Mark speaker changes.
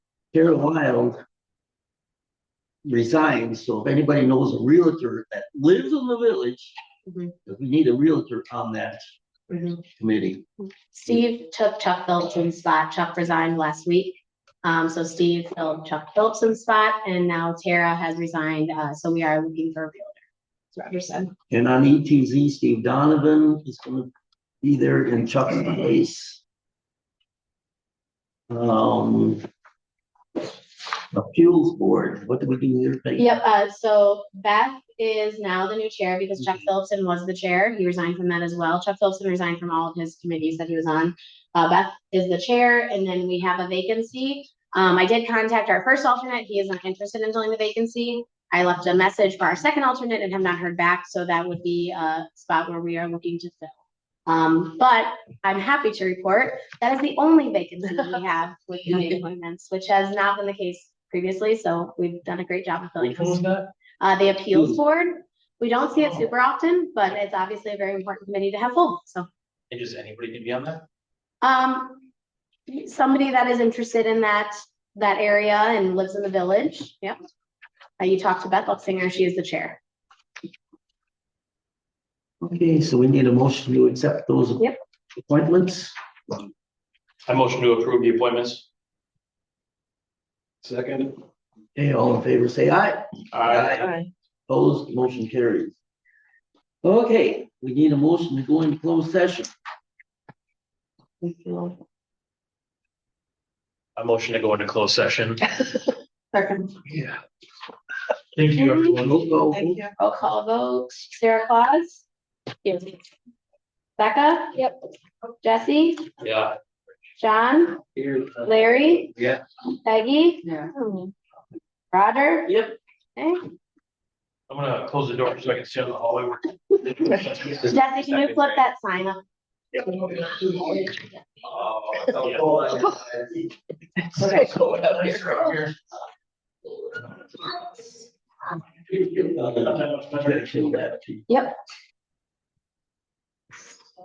Speaker 1: Carol Wild resigned, so if anybody knows a realtor that lives in the village,
Speaker 2: Mhm.
Speaker 1: because we need a realtor on that committee.
Speaker 2: Steve took Chuck Phillipson's spot. Chuck resigned last week. Um, so Steve filled Chuck Phillipson's spot and now Tara has resigned. Uh, so we are looking for a realtor. As Roger said.
Speaker 1: And on ETZ, Steve Donovan is gonna be there in Chuck's place. Um. The Fuels Board, what do we do here? Peggy?
Speaker 2: Yep, uh, so Beth is now the new chair because Chuck Phillipson was the chair. He resigned from that as well. Chuck Phillipson resigned from all of his committees that he was on. Uh, Beth is the chair and then we have a vacancy. Um, I did contact our first alternate. He is not interested in filling the vacancy. I left a message for our second alternate and have not heard back, so that would be a spot where we are looking to fill. Um, but I'm happy to report that is the only vacancy we have with committee appointments, which has not been the case previously, so we've done a great job of filling.
Speaker 1: Which
Speaker 2: those.
Speaker 1: one's that?
Speaker 2: Uh, the appeals
Speaker 1: Hmm.
Speaker 2: board, we don't see it super often, but it's obviously a very important committee to have full, so.
Speaker 3: And just anybody can be on that?
Speaker 2: Um, somebody that is interested in that, that area and lives in the village, yep. Uh, you talked to Beth Luxinger, she is the chair.
Speaker 1: Okay, so we need a motion to accept those.
Speaker 2: Yep.
Speaker 1: Appointments.
Speaker 3: I motion to approve the appointments. Second.
Speaker 1: Okay, all in favor, say aye. Aye. Opposed, motion carries. Okay, we need a motion to go into closed session.
Speaker 3: I motion to go into closed session.
Speaker 2: Second.
Speaker 1: Yeah.
Speaker 3: Thank you, everyone.
Speaker 1: Go,
Speaker 2: Roll call vote, Sarah Claus? Yes. Becca? Yep. Jesse,
Speaker 3: Yeah.
Speaker 2: John,
Speaker 3: Here.
Speaker 2: Larry,
Speaker 3: Yeah.
Speaker 2: Peggy? Roger?
Speaker 1: Yep.
Speaker 2: Okay.
Speaker 3: I'm gonna close the door so I can see in the hallway. Uh,
Speaker 2: Jesse, can you flip that sign up?
Speaker 1: go.
Speaker 2: Yep.